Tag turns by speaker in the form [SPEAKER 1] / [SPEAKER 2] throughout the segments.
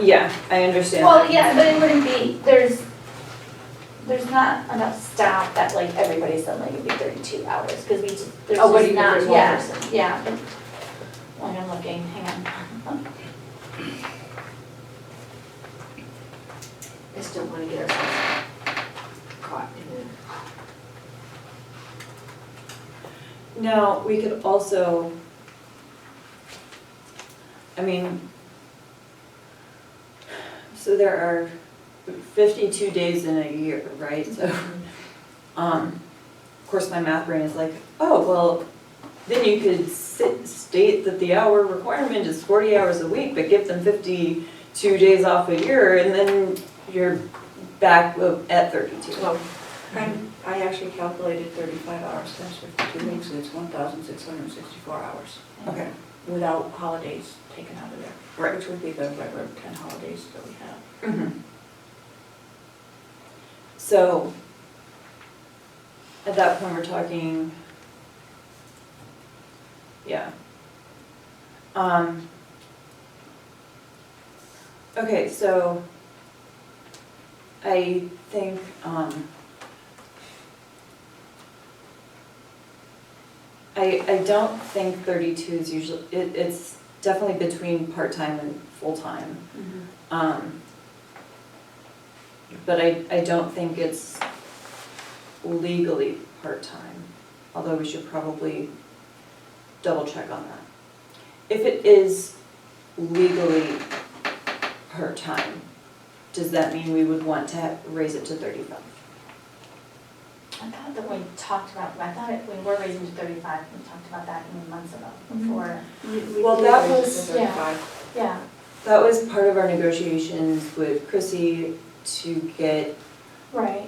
[SPEAKER 1] Yeah, I understand.
[SPEAKER 2] Well,
[SPEAKER 1] that.
[SPEAKER 2] yeah, but it wouldn't be, there's, there's not enough staff that like everybody suddenly would be thirty-two hours, because we just, there's
[SPEAKER 1] Oh, what do
[SPEAKER 2] just
[SPEAKER 1] you mean
[SPEAKER 2] not,
[SPEAKER 1] there's one
[SPEAKER 2] yeah,
[SPEAKER 1] person?
[SPEAKER 2] yeah. Like I'm looking, hang on.
[SPEAKER 3] I just don't wanna get ourselves caught in a
[SPEAKER 1] Now, we could also, I mean, so there are fifty-two days in a year, right? So,
[SPEAKER 2] Mm-hmm.
[SPEAKER 1] um, of course, my math brain is like, oh, well, then you could sit, state that the hour requirement is forty hours a week, but give them fifty-two days off a year, and then you're back at thirty-two.
[SPEAKER 4] Well, I'm, I actually calculated thirty-five hours times fifty-two weeks, and it's one thousand six hundred and sixty-four hours.
[SPEAKER 1] Okay.
[SPEAKER 4] Without holidays taken out of there.
[SPEAKER 1] Right.
[SPEAKER 4] Which would be the regular ten holidays that we have.
[SPEAKER 1] Mhm. So, at that point, we're talking, yeah. Um. Okay, so I think, um, I, I don't think thirty-two is usually, it, it's definitely between part-time and full-time.
[SPEAKER 2] Mm-hmm.
[SPEAKER 1] Um, But I, I don't think it's legally part-time, although we should probably double check on that. If it is legally part-time, does that mean we would want to ha- raise it to thirty-five?
[SPEAKER 2] I thought that we talked about, I thought it- we were raising to thirty-five, we talked about that even months ago,
[SPEAKER 1] Mm-hmm.
[SPEAKER 2] before,
[SPEAKER 1] Well, that was-
[SPEAKER 2] yeah. yeah.
[SPEAKER 1] That was part of our negotiations with Chrissy to get
[SPEAKER 2] Right.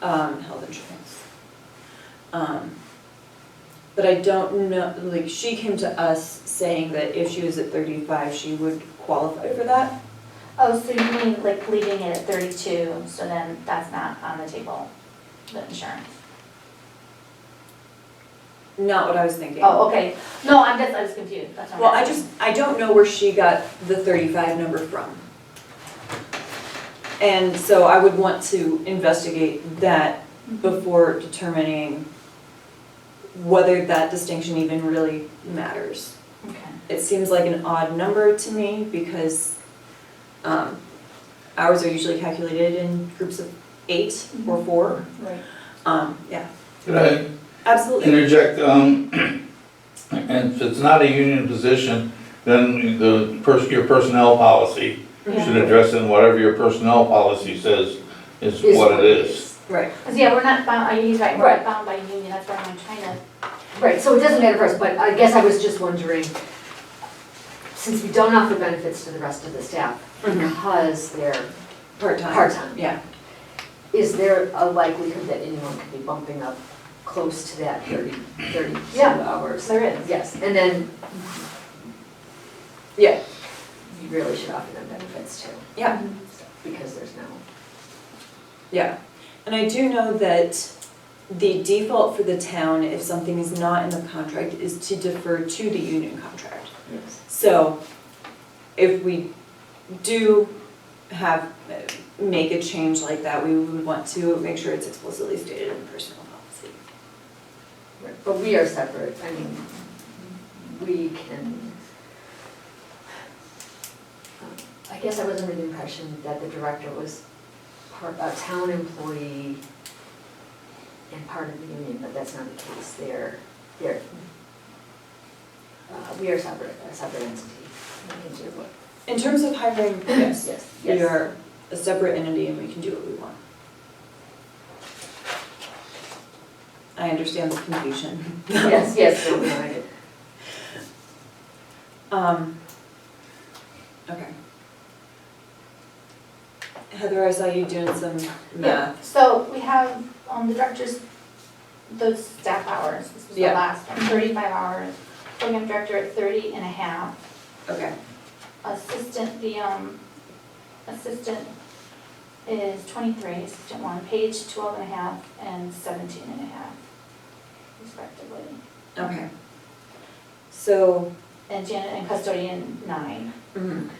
[SPEAKER 1] um, health insurance. Um, but I don't know, like, she came to us saying that if she was at thirty-five, she would qualify for that.
[SPEAKER 2] Oh, so you mean like leaving it at thirty-two, so then that's not on the table, the insurance?
[SPEAKER 1] Not what I was thinking.
[SPEAKER 2] Oh, okay, no, I'm just, I was confused, that's all.
[SPEAKER 1] Well, I just, I don't know where she got the thirty-five number from. And so I would want to investigate that
[SPEAKER 2] Mm-hmm.
[SPEAKER 1] before determining whether that distinction even really matters.
[SPEAKER 2] Okay.
[SPEAKER 1] it seems like an odd number to me because um, hours are usually calculated in groups of eight or four.
[SPEAKER 4] Right.
[SPEAKER 1] Um, Yeah,
[SPEAKER 5] Could I
[SPEAKER 1] absolutely.
[SPEAKER 5] interject? um, And if it's not a union position, then the, pers- your personnel policy should address it, and whatever your personnel policy says is
[SPEAKER 3] Is
[SPEAKER 5] what it is.
[SPEAKER 1] Right,
[SPEAKER 2] Cause yeah, we're not bound, uh, he's right, we're not
[SPEAKER 3] Right.
[SPEAKER 2] bound by union, that's why I'm trying to,
[SPEAKER 3] Right, so it doesn't matter for us, but I guess I was just wondering, since we don't offer benefits to the rest of the staff
[SPEAKER 1] Mhm.
[SPEAKER 3] because they're,
[SPEAKER 1] part-time.
[SPEAKER 3] Part-time.
[SPEAKER 1] Yeah,
[SPEAKER 3] is there a likelihood that anyone could be bumping up close to that 30, 32 hours?
[SPEAKER 2] there is.
[SPEAKER 3] Yes, and then
[SPEAKER 1] yeah,
[SPEAKER 3] you really should offer them benefits too,
[SPEAKER 1] yeah,
[SPEAKER 3] because there's no,
[SPEAKER 1] yeah. And I do know that the default for the town, if something is not in the contract, is to defer to the union contract.
[SPEAKER 3] yes.
[SPEAKER 1] So if we do have, make a change like that, we would want to make sure it's explicitly stated in the personnel policy.
[SPEAKER 3] Right, But we are separate, I mean, we can. I guess I was under the impression that the director was part, a town employee and part of the union, but that's not the case, they're, they're. Uh, we are separate, a separate entity, we can do what.
[SPEAKER 1] In terms of hiring, yes,
[SPEAKER 3] Yes,
[SPEAKER 1] we
[SPEAKER 3] yes.
[SPEAKER 1] are a separate entity and we can do what we want. I understand the confusion.
[SPEAKER 3] Yes, yes, no, no, I did.
[SPEAKER 1] Um, okay. Heather, I saw you doing some math.
[SPEAKER 2] So we have, um, the director's, those staff hours, this was the
[SPEAKER 1] Yeah.
[SPEAKER 2] last one, thirty-five hours. Program director at 30 and a half.
[SPEAKER 1] Okay,
[SPEAKER 2] Assistant, the, um, assistant is twenty-three, assistant one, page 12 and a half, and 17 and a half, respectively.
[SPEAKER 1] okay. So,
[SPEAKER 2] And Janet and custodian, nine.
[SPEAKER 1] mm,